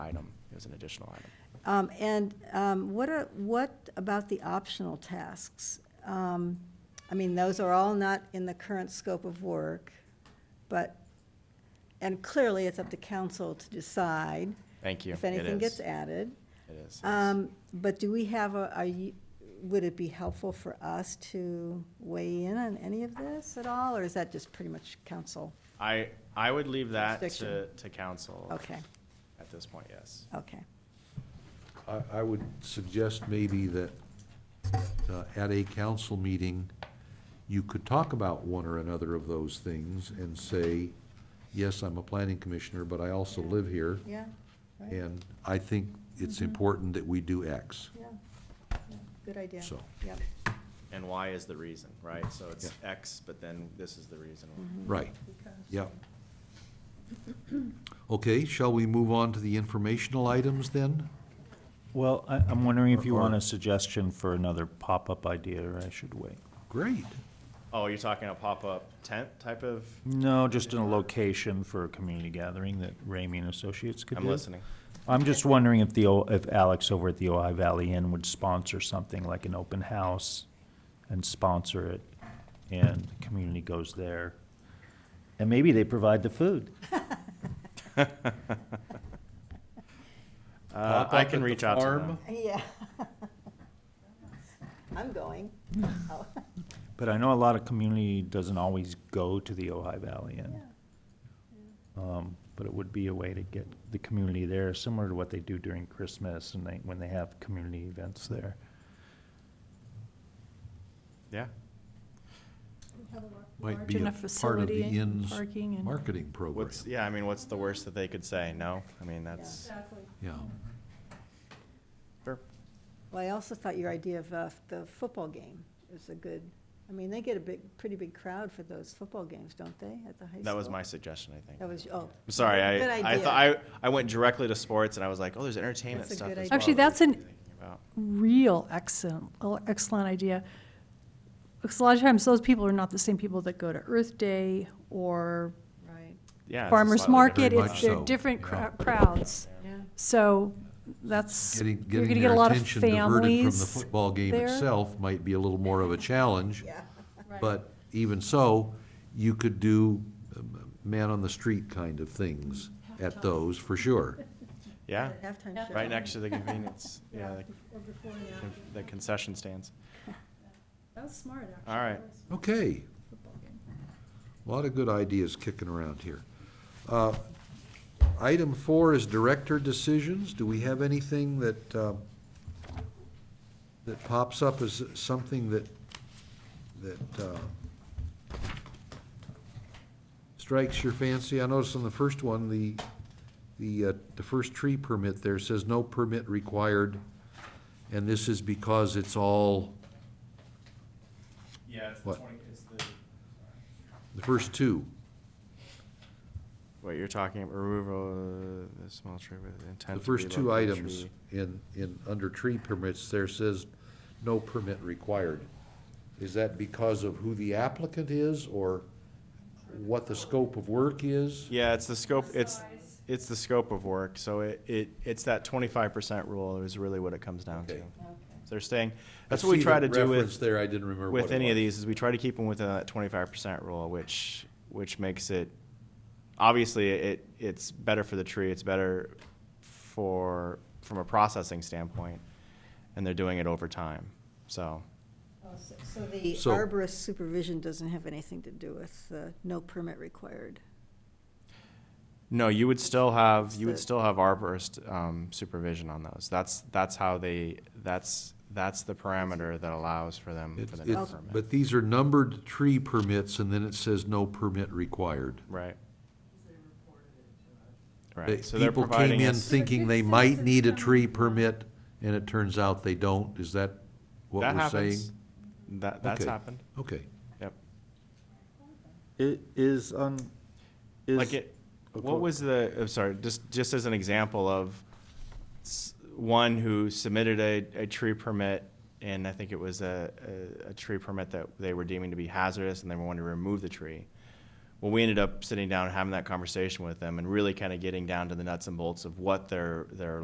item, it was an additional item. Um, And um, what are, what about the optional tasks? Um, I mean, those are all not in the current scope of work, but, and clearly, it's up to council to decide Thank you. if It anything gets is. added. It is. yes. Um, But do we have a, are you, would it be helpful for us to weigh in on any of this at all, or is that just pretty much council? I, I would leave that to, Jurisdiction. to council. Okay, At this point, yes. okay. I, I would suggest maybe that uh, at a council meeting, you could talk about one or another of those things and say, yes, I'm a planning commissioner, but I also live here, Yeah, right, yeah, and I think it's important that we do X. yeah. good idea. So. Yep, And why is the reason, right? So it's Yeah. X, but then this is the reason. why. Mm-hmm. Right, yeah. Okay, shall we move on to the informational items then? Well, I, I'm wondering if you Or- want a suggestion for another pop-up idea, or I should wait? Great. Oh, you're talking a pop-up tent type of? No, just in a location for a community gathering that Ramey and Associates could do. I'm listening. I'm just wondering if the, O- if Alex over at the Ojai Valley Inn would sponsor something like an open house and sponsor it, and the community goes there. And maybe they provide the food. Uh, Pop I up at can the reach out to farm? them. yeah. I'm going. Oh, But I know a lot of community doesn't always go to the Ojai Valley yeah. Inn. Um, But it would be a way to get the community there, similar to what they do during Christmas and they, when they have community events there. Yeah. Might Large be a enough part of the facility and inn's parking and- marketing program. What's, yeah, I mean, what's the worst that they could say? No? I mean, that's, Yeah, Sure. Well, I also thought your idea of uh, the football game is a good, I mean, they get a big, pretty big crowd for those football games, don't they, at the high school? that was my suggestion, I think. That was, oh. I'm sorry, Good I, I idea. thought, I, I went directly to sports and I was like, oh, there's entertainment That's a stuff good as idea. well Actually, that we that's an- could be thinking about. real excellent, excellent idea. Because a lot of times, those people are not the same people that go to Earth Day or Right, Yeah. it's a Farmers slightly Market. different Very It's, much they're so, different yeah. crowd- crowds. yeah. So that's, you're Getting, going to getting get a their lot of attention diverted from the families. football game there. itself might be a little more of a challenge. Yeah. But even so, you could do um, man on the street kind of things at those, for sure. Yeah, Halftime show. right next to the convenience, yeah, the- the concession stands. That was smart, All right. Okay. A Lot of good ideas kicking around here. Uh, Item four is director decisions. Do we have anything that, uh, that pops up as something that, that uh, strikes your fancy? I noticed on the first one, the, the, uh, the first tree permit there says no permit required, and this is because it's all, Yeah, it's the What? it's the. the first two. What you're talking, about removal of the small tree with intent. to The first two relocate a items tree. in, in, under tree permits, there says no permit required. Is that because of who the applicant is or what the scope of work is? Yeah, it's the scope, it's, it's the scope of work, so it, it, it's that twenty-five percent rule is really what it comes down to. Okay. So Okay. they're staying, I that's what we see try the to do Reference with, there, I didn't remember what with it any of was. these, is we try to keep them within that twenty-five percent rule, which, which makes it, obviously, it, it's better for the tree, it's better for, from a processing standpoint, and they're doing it over time, so. Oh, so- So the So- arborist supervision doesn't have anything to do with the no permit required. No, you would still have, you would That's it. still have arborist um, supervision on those. That's, that's how they, that's, that's the parameter that allows for them for It's- the no it's- permit. But these are numbered tree permits and then it says no permit required. Right. They- Right, so they're People came providing in us, thinking they might need a tree permit and it turns out they don't. Is that what that we're saying? happens. That, that's Okay. happened, Okay. yep. It is on, is. Like it, Okay. what was the, I'm sorry, just, just as an example of s- one who submitted a, a tree permit, and I think it was a, a, a tree permit that they were deeming to be hazardous, and they wanted to remove the tree. well, we ended up sitting down and having that conversation with them and really kind of getting down to the nuts and bolts of what their, their